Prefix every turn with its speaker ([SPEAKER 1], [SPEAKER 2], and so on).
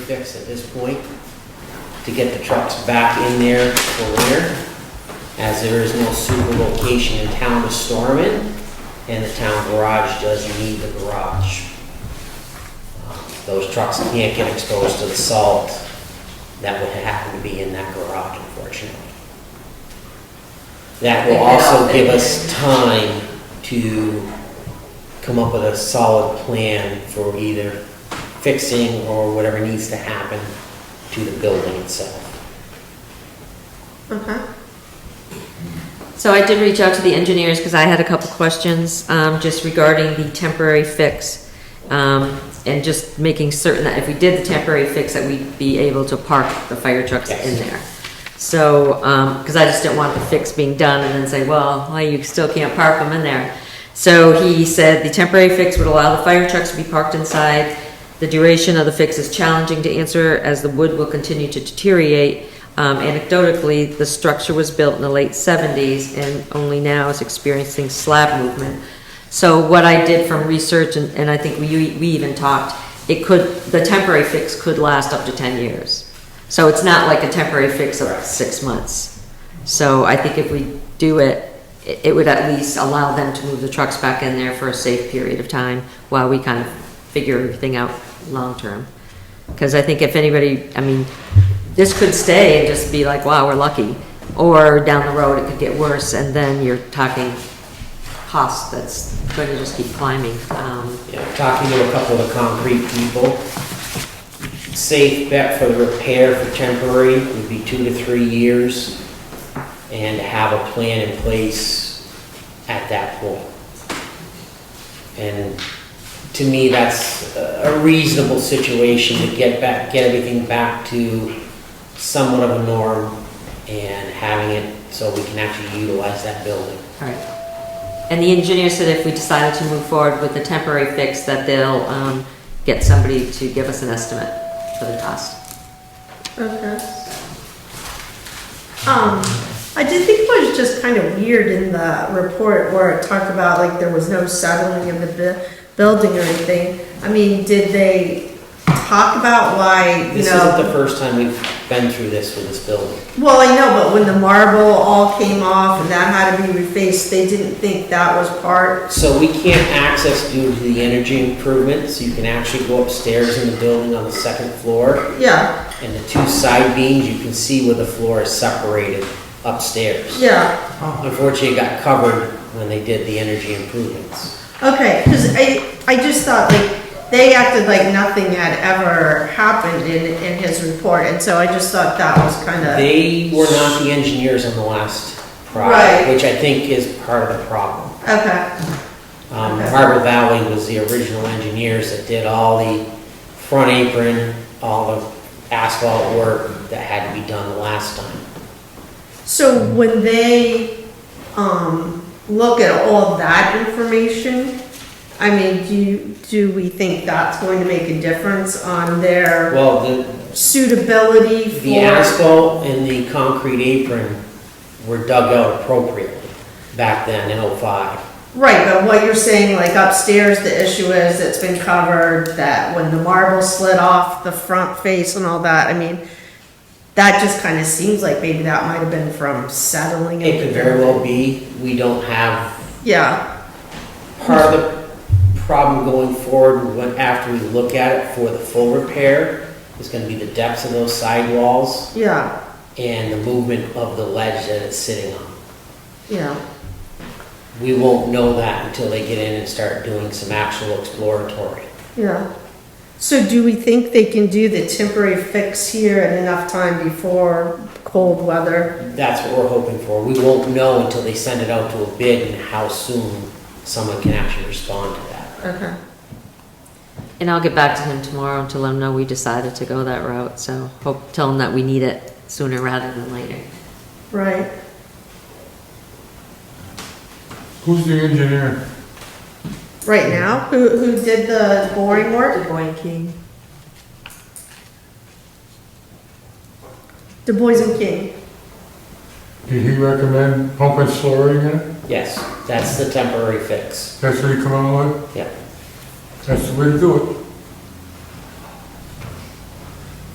[SPEAKER 1] fix at this point to get the trucks back in there for winter, as there is no super location in town to store them in, and the town garage does need the garage. Um, Those trucks can't get exposed to the salt that would happen to be in that garage, unfortunately. That will also give us time to come up with a solid plan for either fixing or whatever needs to happen to the building itself.
[SPEAKER 2] Okay. So I did reach out to the engineers because I had a couple questions, um, just regarding the temporary fix. Um, and just making certain that if we did the temporary fix, that we'd be able to park the fire trucks in
[SPEAKER 1] Yes.
[SPEAKER 2] there. So, um 'cause because I just didn't want the fix being done and then say, well, why you still can't park them in there. So he said the temporary fix would allow the fire trucks to be parked inside. The duration of the fix is challenging to answer as the wood will continue to deteriorate. Um, anecdotally, the structure was built in the late seventies and only now is experiencing slab movement. So what I did from research, and, and I think we, we even talked, it could, the temporary fix could last up to ten years. So it's not like a temporary fix of six months. So I think if we do it, it it would at least allow them to move the trucks back in there for a safe period of time while we kind of figure everything out long-term. Because I think if anybody, I mean, this could stay and just be like, wow, we're lucky. Or down the road, it could get worse, and then you're talking cost that's going to just keep climbing. Um,
[SPEAKER 1] You know, talking to a couple of the concrete people, safe bet for the repair for temporary would be two to three years and to have a plan in place at that point. And to me, that's a reasonable situation to get back, get everything back to somewhat of a norm and having it so we can actually utilize that building.
[SPEAKER 2] All right. And the engineer said if we decided to move forward with the temporary fix, that they'll um, get somebody to give us an estimate for the cost.
[SPEAKER 3] Okay. Um, I did think it was just kind of weird in the report where it talked about like there was no settling in the bu- building or anything. I mean, did they talk about why, you
[SPEAKER 1] This isn't
[SPEAKER 3] know?
[SPEAKER 1] the first time we've been through this with this building.
[SPEAKER 3] Well, I know, but when the marble all came off and that had to be refaced, they didn't think that was part.
[SPEAKER 1] So we can't access due to the energy improvements. You can actually go upstairs in the building on the second floor,
[SPEAKER 3] Yeah,
[SPEAKER 1] and the two side beams, you can see where the floor is separated upstairs.
[SPEAKER 3] yeah.
[SPEAKER 1] Unfortunately, it got covered when they did the energy improvements.
[SPEAKER 3] Okay, because I, I just thought like, they acted like nothing had ever happened in, in his report, and so I just thought that was kind of.
[SPEAKER 1] They were not the engineers on the last
[SPEAKER 3] Right.
[SPEAKER 1] project, which I think is part of the problem.
[SPEAKER 3] Okay,
[SPEAKER 1] Um,
[SPEAKER 3] Okay.
[SPEAKER 1] Harbor Valley was the original engineers that did all the front apron, all the asphalt work that had to be done the last time.
[SPEAKER 3] so when they, um, look at all that information, I mean, do you, do we think that's going to make a difference on their
[SPEAKER 1] Well, the,
[SPEAKER 3] suitability
[SPEAKER 1] the
[SPEAKER 3] for?
[SPEAKER 1] asphalt and the concrete apron were dug out appropriately back then in '05.
[SPEAKER 3] Right, but what you're saying, like upstairs, the issue is it's been covered, that when the marble slid off the front face and all that, I mean, that just kind of seems like maybe that might have been from settling.
[SPEAKER 1] It could very well be, we don't have
[SPEAKER 3] Yeah,
[SPEAKER 1] Part of the problem going forward, when, after we look at it for the full repair, is gonna be the depths of those sidewalls
[SPEAKER 3] yeah,
[SPEAKER 1] and the movement of the ledge that it's sitting on.
[SPEAKER 3] yeah,
[SPEAKER 1] We won't know that until they get in and start doing some actual exploratory.
[SPEAKER 3] yeah. So do we think they can do the temporary fix here in enough time before cold weather?
[SPEAKER 1] That's what we're hoping for. We won't know until they send it out to a bid and how soon someone can actually respond to that.
[SPEAKER 3] Okay.
[SPEAKER 2] And I'll get back to him tomorrow to let him know we decided to go that route, so hope, tell him that we need it sooner rather than later.
[SPEAKER 3] Right,
[SPEAKER 4] Who's the engineer?
[SPEAKER 3] right now, who, who did the boring work?
[SPEAKER 2] Boy King.
[SPEAKER 3] Du Bois and King.
[SPEAKER 4] Did he recommend pumping slurry in it?
[SPEAKER 1] Yes, that's the temporary fix.
[SPEAKER 4] That's what he come out with?
[SPEAKER 1] Yeah.
[SPEAKER 4] That's the way to do it.